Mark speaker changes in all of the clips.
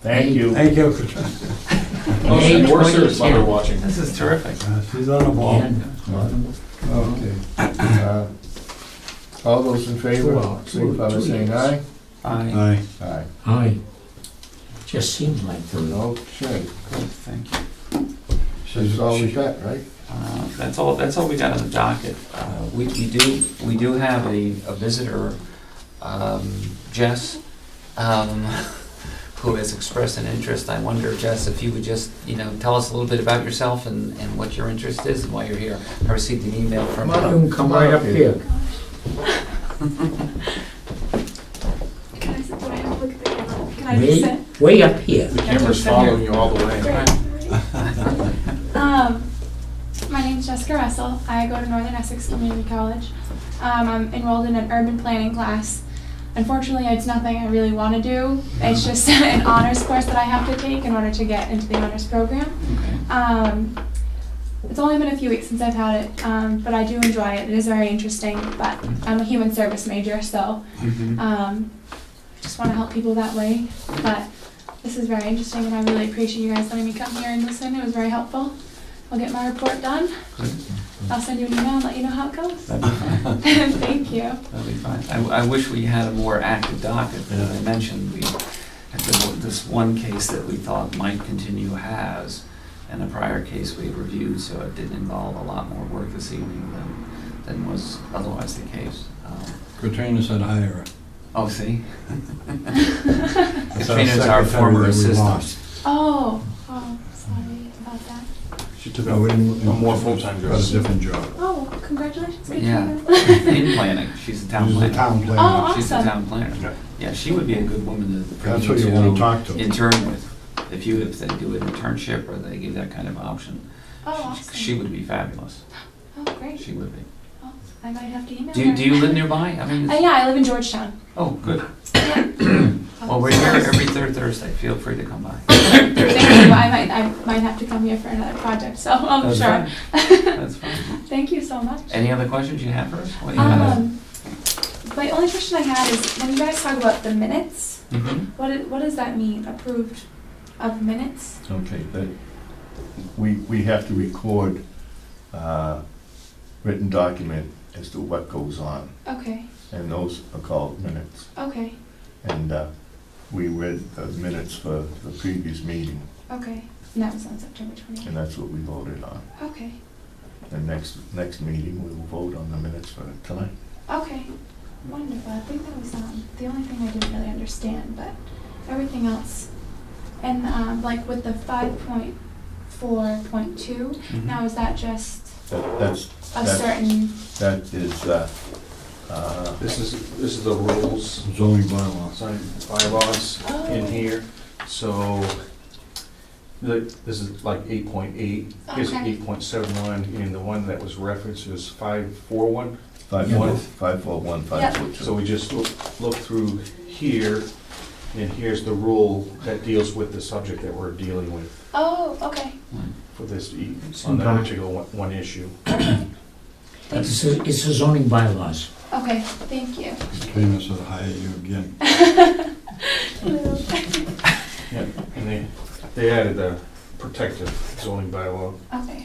Speaker 1: Thank you.
Speaker 2: Thank you, Katrina.
Speaker 3: Oh,
Speaker 4: May
Speaker 3: Worcester's mother
Speaker 4: 2010.
Speaker 3: watching.
Speaker 4: This is terrific.
Speaker 2: Uh, She's on a ball.
Speaker 5: Okay. Uh, All those in favor, signify by saying aye.
Speaker 4: Aye.
Speaker 2: Aye.
Speaker 5: Aye.
Speaker 1: Aye. Just seemed like the,
Speaker 5: Okay,
Speaker 4: Good, thank you.
Speaker 5: that's all we got, right?
Speaker 4: Uh, That's all, that's all we got on the docket. Uh, We, we do, we do have a, a visitor,
Speaker 1: uh,
Speaker 4: um, Jess, um, who has expressed an interest. I wonder, Jess, if you would just, you know, tell us a little bit about yourself and, and what your interest is and why you're here. I received an email from
Speaker 1: you
Speaker 4: her.
Speaker 1: can come right up here.
Speaker 6: Can I sit, do I have to look at the camera? Can I just
Speaker 1: Way,
Speaker 6: sit?
Speaker 1: way up here.
Speaker 3: The camera's following you all the way.
Speaker 6: Great. Um, my name's Jessica Russell. I go to Northern Essex Community College. Um, I'm enrolled in an urban planning class. Unfortunately, it's nothing I really want to do. It's just an honors course that I have to take in order to get into the honors program.
Speaker 4: Okay.
Speaker 6: Um, it's only been a few weeks since I've had it, um, but I do enjoy it. It is very interesting, but I'm a human service major, so
Speaker 4: Mm-hmm.
Speaker 6: um, just want to help people that way. But this is very interesting, and I really appreciate you guys letting me come here and listen. It was very helpful. I'll get my report done. I'll send you an email and let you know how it goes.
Speaker 4: That'd be fine.
Speaker 6: Thank you.
Speaker 4: That'd be fine. I, I wish we had a more active docket, but as I mentioned, we, at the- this one case that we thought might continue has, and a prior case we reviewed, so it did involve a lot more work this evening than, than was otherwise the case. Um,
Speaker 2: Katrina said hire her.
Speaker 4: Oh, see?
Speaker 2: That's
Speaker 4: Katrina's our
Speaker 2: secretary
Speaker 4: former
Speaker 2: that we
Speaker 4: assistant.
Speaker 2: lost.
Speaker 6: Oh, oh, sorry about that.
Speaker 2: She took a more
Speaker 3: full-time job.
Speaker 2: Got a different job.
Speaker 6: Oh, congratulations, good
Speaker 4: Yeah.
Speaker 6: job.
Speaker 4: In planning, she's a town
Speaker 2: She's a
Speaker 4: planner.
Speaker 2: town
Speaker 6: Oh.
Speaker 2: planner.
Speaker 4: She's a
Speaker 6: awesome.
Speaker 4: town
Speaker 3: Yeah.
Speaker 4: planner. Yeah, she would be a good woman to. bring
Speaker 2: That's who you want to talk to.
Speaker 4: Intern with, if you, if they do an internship or they give that kind of option.
Speaker 6: Oh,
Speaker 4: She- She
Speaker 6: awesome.
Speaker 4: would be fabulous.
Speaker 6: Oh, great. Oh,
Speaker 4: She would be.
Speaker 6: I might have to email
Speaker 4: Do you,
Speaker 6: her.
Speaker 4: do you live nearby? I mean,
Speaker 6: Uh,
Speaker 4: it's-
Speaker 6: yeah, I live in Georgetown.
Speaker 4: oh, good. Well,
Speaker 6: Oh,
Speaker 4: we're here every third Thursday. Feel free to come by.
Speaker 6: Thank you. I might, I might have to come here for another project, so I'm
Speaker 4: That's
Speaker 6: Oh, sure.
Speaker 4: fine. That's fine.
Speaker 6: Thank you so much.
Speaker 4: Any other questions you have for us? What do you have?
Speaker 6: Um, my only question I had is when you guys talk about the minutes,
Speaker 4: Mhm.
Speaker 6: what it, what does that mean? Approved of minutes?
Speaker 5: Okay, that, we, we have to record uh, written document as to what goes on,
Speaker 6: Okay.
Speaker 5: and those are called minutes.
Speaker 6: Okay.
Speaker 5: And uh, we read the minutes for the previous meeting,
Speaker 6: Okay. And that was on September 28th.
Speaker 5: and that's what we voted on.
Speaker 6: Okay.
Speaker 5: And next, next meeting, we will vote on the minutes for tonight.
Speaker 6: Okay. Wonderful. I think that was um, the only thing I didn't really understand, but everything else. And um, like with the 5.4.2,
Speaker 4: Mhm.
Speaker 6: now is that just
Speaker 5: That, that's,
Speaker 6: a
Speaker 5: That's-
Speaker 6: certain.
Speaker 5: that is, uh, uh,
Speaker 3: This is, this is the rules,
Speaker 2: Zoning bylaws.
Speaker 3: sign bylaws in
Speaker 6: Oh.
Speaker 3: here, so the, this is like eight point eight, here's
Speaker 6: Okay.
Speaker 3: eight point seven one, and the one that was referenced was five four one.
Speaker 5: five, one, five, four, one, five, four, two.
Speaker 3: So we just look, look through here, and here's the rule that deals with the subject that we're dealing with
Speaker 6: Oh, okay.
Speaker 3: for this, e- on that particular one, one issue.
Speaker 6: Okay. Thank
Speaker 1: It's a it's a zoning bylaws.
Speaker 6: Okay, thank you.
Speaker 2: Katrina said hire you again.
Speaker 3: Yeah, and they, they added the protective zoning bylaw.
Speaker 6: Okay.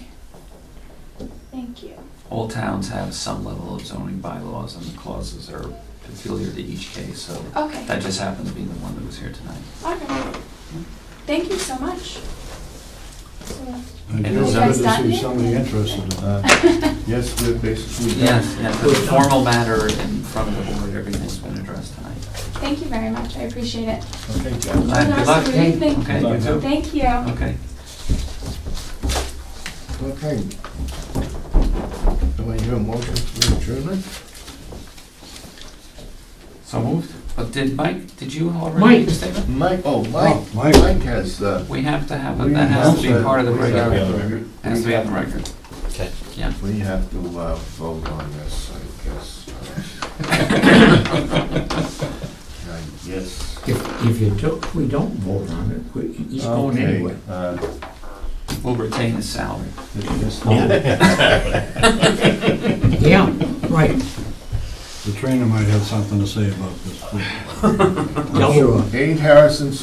Speaker 6: Thank you.
Speaker 4: All towns have some level of zoning bylaws and the clauses are peculiar to each case, so
Speaker 6: Okay.
Speaker 4: that just happened to be the one that was here tonight.
Speaker 6: All right. Thank you so much. So,
Speaker 2: And
Speaker 4: And
Speaker 2: it was
Speaker 4: is
Speaker 2: good
Speaker 6: that
Speaker 2: to
Speaker 6: done
Speaker 2: see
Speaker 6: yet?
Speaker 2: somebody interested in that.
Speaker 5: Uh, Yes, we're basically done.
Speaker 4: Yes, yes, the formal matter in front of the board, everything's been addressed tonight.
Speaker 6: Thank you very much. I appreciate it.
Speaker 5: Okay,
Speaker 6: Have
Speaker 5: Jeff.
Speaker 6: a
Speaker 4: All right, good
Speaker 6: nice
Speaker 4: luck.
Speaker 6: evening.
Speaker 4: Okay,
Speaker 5: Bye.
Speaker 4: you too.
Speaker 6: Thank you.
Speaker 4: Okay.
Speaker 5: Okay. Do I hear a motion for adjournment?
Speaker 4: So moved. But did Mike, did you already
Speaker 1: Mike.
Speaker 4: make a statement?
Speaker 5: Mike, oh,
Speaker 2: Oh,
Speaker 5: Mike,
Speaker 2: Mike.
Speaker 5: Mike has, uh.
Speaker 4: We have to have,
Speaker 5: we
Speaker 4: it. that has to be
Speaker 5: have
Speaker 4: part of the
Speaker 5: we have
Speaker 4: regular,
Speaker 5: to-
Speaker 4: has to be on the record.
Speaker 5: Okay.
Speaker 4: Yeah.
Speaker 5: We have to, uh, vote on this, I guess. Uh, Yes.
Speaker 1: If if you do we don't vote on it, we- he's going
Speaker 5: Okay,
Speaker 1: anyway.
Speaker 5: uh,
Speaker 4: Will retain his salary.
Speaker 5: this-
Speaker 1: Yeah, right.
Speaker 2: Katrina might have something to say about this. too. I'm
Speaker 1: Double.
Speaker 2: sure.
Speaker 5: Eight Harrison